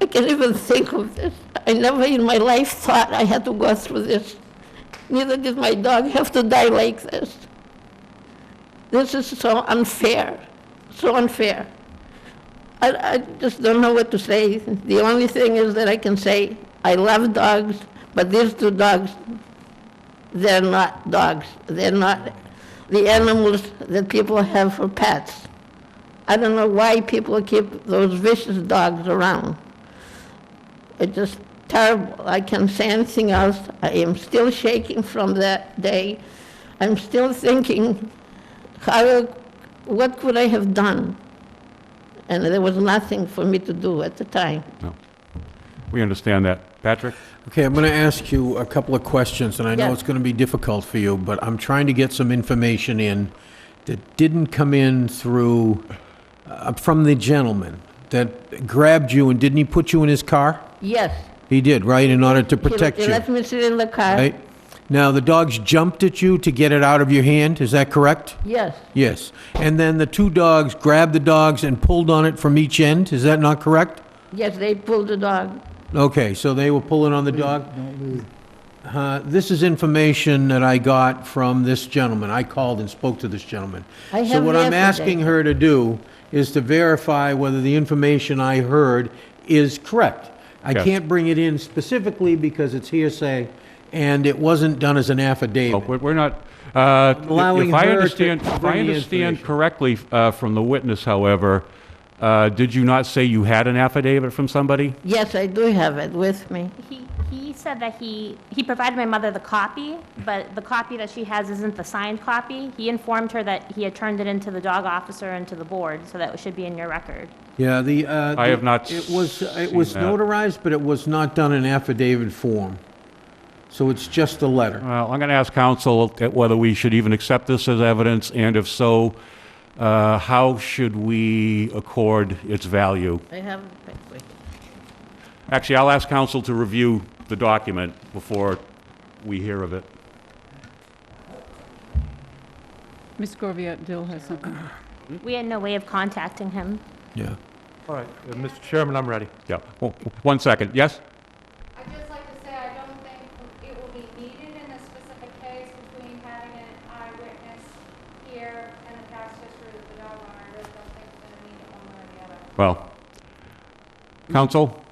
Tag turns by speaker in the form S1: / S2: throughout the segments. S1: I can't even think of this. I never in my life thought I had to go through this. Neither did my dog have to die like this. This is so unfair, so unfair. I, I just don't know what to say. The only thing is that I can say, I love dogs, but these two dogs, they're not dogs. They're not the animals that people have for pets. I don't know why people keep those vicious dogs around. It's just terrible. I can't say anything else. I am still shaking from that day. I'm still thinking, how, what could I have done? And there was nothing for me to do at the time.
S2: No. We understand that. Patrick?
S3: Okay, I'm going to ask you a couple of questions, and I know
S1: Yes.
S3: it's going to be difficult for you, but I'm trying to get some information in that didn't come in through, uh, from the gentleman that grabbed you, and didn't he put you in his car?
S1: Yes.
S3: He did, right, in order to
S1: he-
S3: protect
S1: He
S3: you,
S1: let me sit in the car.
S3: right? Now, the dogs jumped at you to get it out of your hand, is that correct?
S1: Yes,
S3: Yes. And then the two dogs grabbed the dogs and pulled on it from each end, is that not correct?
S1: yes, they pulled the dog.
S3: Okay, so they were pulling on the dog? Uh, This is information that I got from this gentleman. I called and spoke to this gentleman.
S1: I
S3: So
S1: have
S3: what I'm
S1: everything.
S3: asking her to do is to verify whether the information I heard is correct. I
S2: Yes.
S3: can't bring it in specifically because it's hearsay, and it wasn't done as an
S2: Oh,
S3: affidavit.
S2: We're we're not, uh, if
S3: allowing
S2: if I
S3: her to
S2: understand, if I
S3: bring the
S2: understand
S3: information.
S2: correctly uh, from the witness, however, uh, did you not say you had an affidavit from somebody?
S1: Yes, I do have it with me.
S4: He, he said that he, he provided my mother the copy, but the copy that she has isn't the signed copy. He informed her that he had turned it into the dog officer and to the board, so that it should be in your record.
S3: Yeah, the... uh,
S2: I have not
S3: It was, uh, it
S2: seen
S3: was
S2: that.
S3: notarized, but it was not done in affidavit form. So it's just a letter.
S2: Well, I'm going to ask counsel at whether we should even accept this as evidence, and if so, uh, how should we accord its value?
S1: I have it with me.
S2: Actually, I'll ask counsel to review the document before we hear of it.
S5: Ms. Gorviat Dill has something.
S1: Hmm?
S4: We had no way of contacting him.
S3: Yeah.
S6: All right, uh, Mr. Chairman, I'm ready.
S2: Yeah, Oh, one second, yes?
S7: I'd just like to say, I don't think it will be needed in this specific case between having an eyewitness here and a past history of the dog owner. I just don't think it's going to need it one way or the other.
S2: Well, counsel?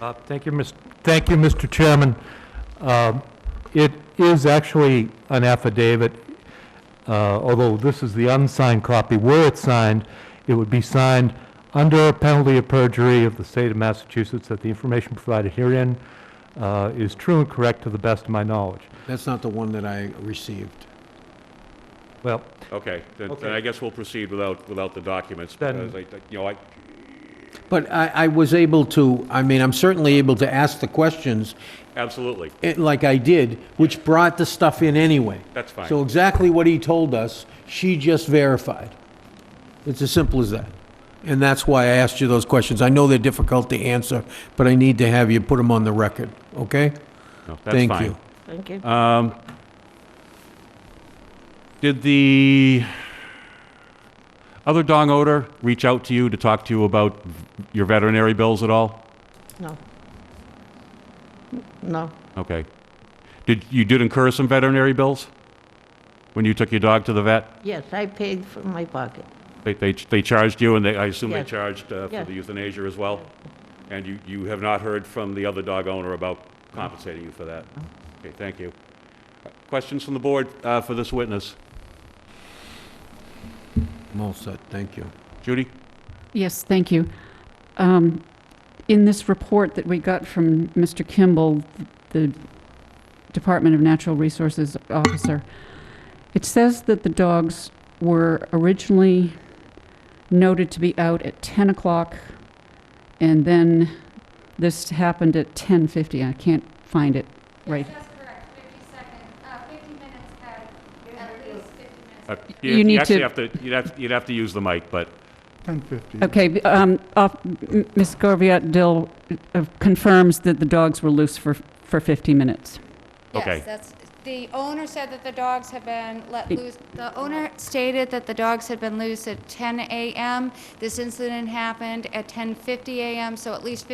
S6: Uh, Thank you, Mr. Thank you, Mr. Chairman. Um, It is actually an affidavit, uh, although this is the unsigned copy. Were it signed, it would be signed under penalty of perjury of the state of Massachusetts that the information provided herein uh, is true and correct to the best of my knowledge.
S3: That's not the one that I received.
S6: Well,
S2: Okay, then
S6: then I
S2: guess we'll proceed without, without the documents,
S6: Then- because
S2: you know, I...
S3: But I, I was able to, I mean, I'm certainly able to ask the questions,
S2: Absolutely.
S3: eh, like I did, which brought the stuff in anyway.
S2: That's fine.
S3: So exactly what he told us, she just verified. It's as simple as that. And that's why I asked you those questions. I know they're difficult to answer, but I need to have you put them on the record, okay? Thank you.
S1: Thank you.
S2: Did the other dog owner reach out to you to talk to you about your veterinary bills at all?
S1: No. No.
S2: Okay. Did, you did incur some veterinary bills when you took your dog to the vet?
S1: Yes, I paid from my pocket.
S2: They, they, they charged you, and they, I assume they
S1: Yes.
S2: charged uh, for
S1: Yes.
S2: the euthanasia as well? And you, you have not heard from the other dog owner about compensating you for that? Okay, thank you. Questions from the board uh, for this witness?
S3: I'm all set, thank you.
S2: Judy?
S5: Yes, thank you. Um, In this report that we got from Mr. Kimball, the Department of Natural Resources officer, it says that the dogs were originally noted to be out at 10 o'clock, and then this happened at 10:50. I can't find it right.
S7: That's correct, 50 seconds, uh, 50 minutes, Patty, at least 50 minutes.
S2: Uh,
S5: You need
S2: actually
S5: to-
S2: have to, you'd have, you'd have to use the mic, but
S5: Okay, b- um, off- m- Ms. Gorviat Dill uh, confirms that the dogs were loose for for 50 minutes.
S2: Okay.
S7: Yes, that's, the owner said that the dogs had been let
S5: It-
S7: loose. The owner stated that the dogs had been loose at 10 a.m. This incident happened at 10:50 a.m., so at least